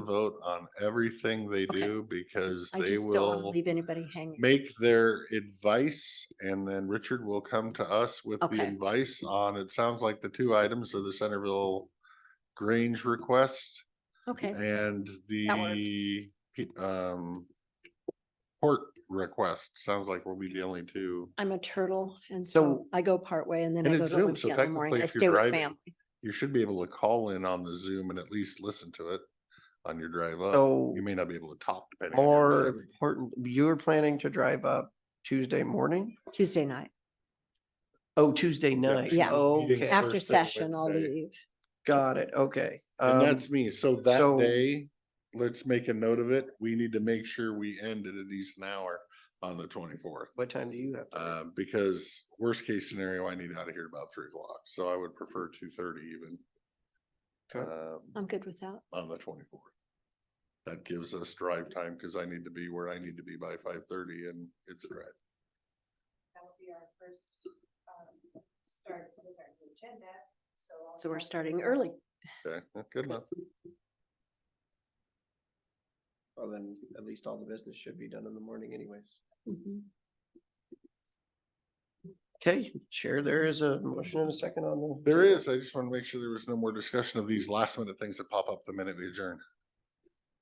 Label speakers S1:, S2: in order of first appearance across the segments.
S1: vote on everything they
S2: Okay.
S1: do because
S2: I
S1: they
S2: just don't want to
S1: will
S2: leave anybody hanging.
S1: make their advice and then Richard will come to us with the
S2: Okay.
S1: advice on, it sounds like the two items are the Centerville Grange request
S2: Okay,
S1: and the p- um port request. Sounds like we'll be the only two.
S2: I'm a turtle and so
S1: So-
S2: I go partway and then
S1: And
S2: I go
S1: it's
S2: to
S1: Zoom, so
S2: Olympia in the morning.
S1: technically
S2: I
S1: if you're
S2: stay with
S1: driving-
S2: family.
S1: You should be able to call in on the Zoom and at least listen to it on your drive up.
S3: So
S1: You may not be able to talk depending. on your
S3: more
S1: reception.
S3: important, you were planning to drive up Tuesday morning?
S2: Tuesday night.
S3: Oh, Tuesday night.
S2: Yeah.
S1: Meeting's
S3: Okay,
S1: Af-
S2: After
S1: Thursday and
S2: session, I'll
S1: Wednesday.
S2: leave.
S3: got it. Okay.
S1: And
S3: Um,
S1: that's me. So that
S3: so-
S1: day, let's make a note of it. We need to make sure we end at a decent hour on the twenty-fourth.
S3: What time do you have? to leave?
S1: Uh, because worst case scenario, I need out of here about three o'clock. So I would prefer two thirty even.
S3: Okay.
S1: Um,
S2: I'm good with that.
S1: on the twenty-fourth. That gives us drive time because I need to be where I need to be by five thirty and it's a drive.
S4: That will be our first, um, start with our new agenda, so. I'll
S2: So we're
S4: have to-
S2: starting early.
S1: Okay, good enough.
S3: Well, then at least all the business should be done in the morning anyways. Mm-hmm.
S2: Mhm.
S3: Okay, Chair, there is a motion and a second on the.
S1: There is, I just want to make sure there was no more discussion of these last minute things that pop up the minute we adjourn.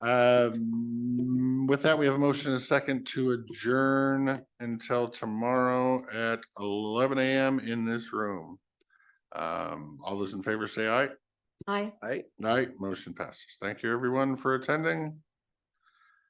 S1: Um, with that, we have a motion and a second to adjourn until tomorrow at eleven AM in this room. Um, all those in favor say aye.
S2: Hi.
S3: All right.
S1: Aye, motion passes. Thank you everyone for attending.